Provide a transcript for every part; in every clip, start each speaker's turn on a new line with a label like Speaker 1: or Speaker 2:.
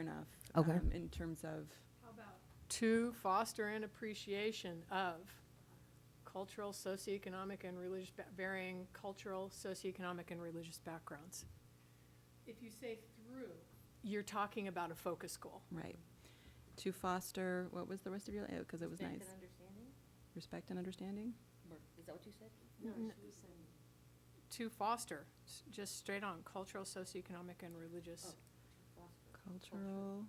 Speaker 1: enough.
Speaker 2: Okay.
Speaker 1: um, In terms of,
Speaker 3: To foster an appreciation of cultural, socioeconomic, and religious, ba- varying cultural, socioeconomic, and religious backgrounds. If you say through. You're talking about a focus goal.
Speaker 1: right, to foster, what was the rest of your, oh, because it was nice,
Speaker 4: understanding?
Speaker 1: respect and understanding?
Speaker 4: Is that what you said?
Speaker 3: No, she To foster, s- just straight on, cultural, socioeconomic, and religious.
Speaker 1: Cultural,
Speaker 5: and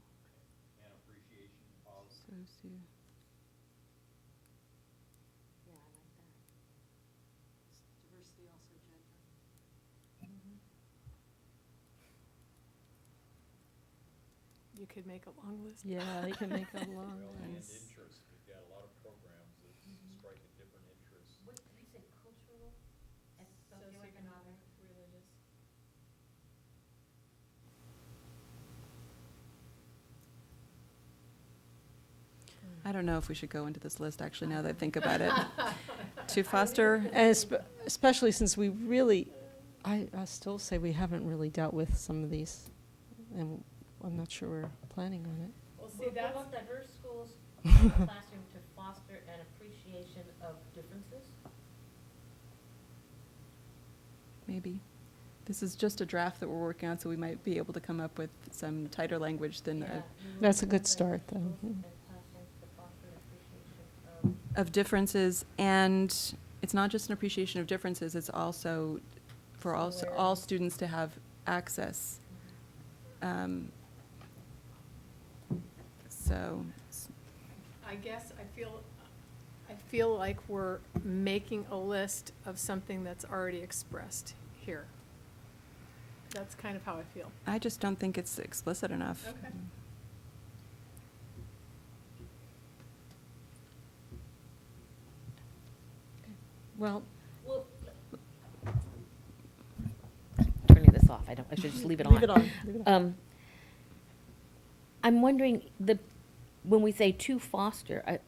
Speaker 5: appreciation of
Speaker 1: socio,
Speaker 4: Yeah, I like that. Diversity also gender.
Speaker 3: You could make a long list.
Speaker 2: Yeah, you can make a long
Speaker 5: well and
Speaker 2: list.
Speaker 5: interest. We've got a lot of programs that
Speaker 1: Mm-hmm.
Speaker 5: strike at different interests.
Speaker 4: What, did you say cultural and socioeconomic?
Speaker 3: Socioeconomic, religious.
Speaker 1: I don't know if we should go into this list, actually, now that I think about it. To foster,
Speaker 2: And espe- especially since we really, I, I still say we haven't really dealt with some of these, and I'm not sure we're planning on it.
Speaker 3: Well,
Speaker 4: We we want diverse schools in the classroom to foster an appreciation of differences?
Speaker 1: maybe. This is just a draft that we're working on, so we might be able to come up with some tighter language than,
Speaker 4: Yeah,
Speaker 1: a-
Speaker 4: we want
Speaker 2: That's a good
Speaker 4: diverse
Speaker 2: start, though,
Speaker 4: schools
Speaker 2: yeah.
Speaker 4: and classrooms to foster an appreciation of-
Speaker 1: of differences. And it's not just an appreciation of differences, it's also for all, s- all
Speaker 4: Similarity.
Speaker 1: students to have access. Um, So, s-
Speaker 3: I guess I feel, I feel like we're making a list of something that's already expressed here. That's kind of how I feel.
Speaker 1: I just don't think it's explicit enough.
Speaker 3: Okay.
Speaker 2: Well,
Speaker 4: Well, turning this off, I don't, I should just leave it on.
Speaker 2: Leave it on, leave it on.
Speaker 4: Um, I'm wondering, the, when we say to foster, I-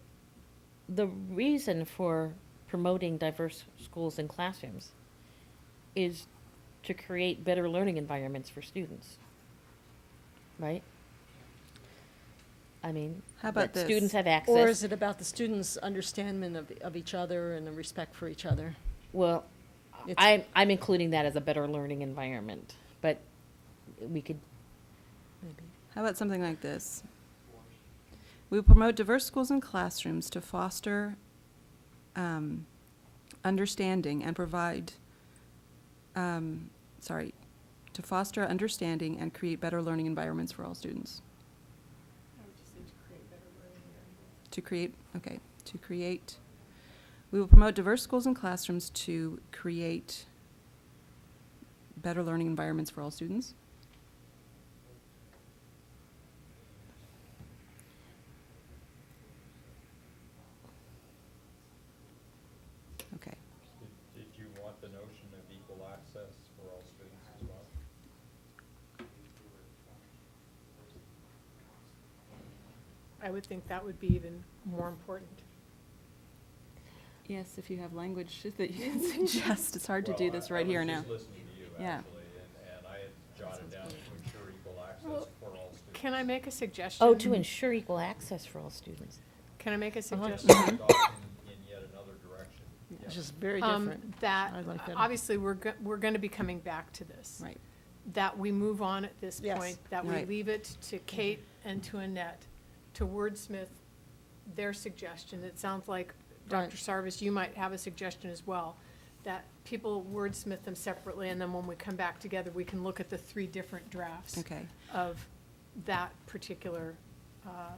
Speaker 4: the reason for promoting diverse schools and classrooms is to create better learning environments for students, right? I mean,
Speaker 1: How about
Speaker 4: that students
Speaker 1: this?
Speaker 4: have access.
Speaker 2: or is it about the students' understanding of, of each other and the respect for each other?
Speaker 4: Well,
Speaker 2: It's-
Speaker 4: I'm, I'm including that as a better learning environment, but we could,
Speaker 2: Maybe.
Speaker 1: How about something like this? We will promote diverse schools and classrooms to foster um, understanding and provide, um, sorry, to foster understanding and create better learning environments for all students. To create, okay, to create. We will promote diverse schools and classrooms to create better learning environments for all students. Okay.
Speaker 5: Did, did you want the notion of equal access for all students as well?
Speaker 3: I would think that would be even more important.
Speaker 1: Yes, if you have language that you suggest, it's hard to do
Speaker 5: Well, I-
Speaker 1: this right here
Speaker 5: I
Speaker 1: now.
Speaker 5: was just listening to you,
Speaker 1: Yeah.
Speaker 5: actually, and, and I had jotted down to ensure equal access
Speaker 3: Well,
Speaker 5: for all students.
Speaker 3: Can I make a suggestion?
Speaker 4: oh, to ensure equal access for all students.
Speaker 3: Can I make a
Speaker 2: Uh-huh.
Speaker 5: Just
Speaker 3: suggestion?
Speaker 5: off in- In yet another direction. Yeah.
Speaker 2: It's just very
Speaker 3: Um,
Speaker 2: different.
Speaker 3: That,
Speaker 2: I like that.
Speaker 3: obviously, we're, go- we're going to be coming back to this.
Speaker 1: Right.
Speaker 3: that we move on at this
Speaker 2: Yes.
Speaker 3: point, that we
Speaker 1: Right.
Speaker 3: leave it to Kate and to Annette to wordsmith their suggestion. It sounds like,
Speaker 2: Right.
Speaker 3: Dr. Sarvis, you might have a suggestion as well, that people wordsmith them separately, and then when we come back together, we can look at the three different drafts
Speaker 1: Okay.
Speaker 3: of that particular, uh,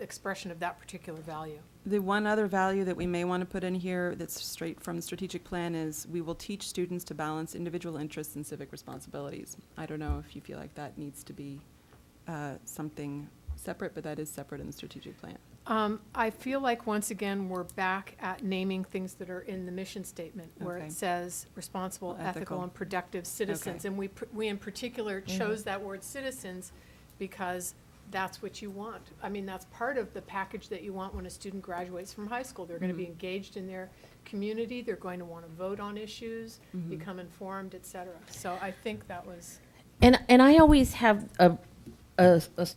Speaker 3: expression of that particular value.
Speaker 1: The one other value that we may want to put in here that's straight from the strategic plan is we will teach students to balance individual interests and civic responsibilities. I don't know if you feel like that needs to be uh, something separate, but that is separate in the strategic plan.
Speaker 3: Um, I feel like, once again, we're back at naming things that are in the mission statement, where
Speaker 1: Okay.
Speaker 3: it says responsible,
Speaker 1: Ethical.
Speaker 3: ethical, and productive citizens.
Speaker 1: Okay. Mm-hmm.
Speaker 3: And we, pr- we in particular chose that word citizens because that's what you want. I mean, that's part of the package that you want when a student graduates from high school. They're gonna be
Speaker 1: Mhm.
Speaker 3: engaged in their community, they're going to wanna vote on issues,
Speaker 1: Mhm.
Speaker 3: become informed, et cetera. So I think that was,
Speaker 4: And, and I always have a, a, a s-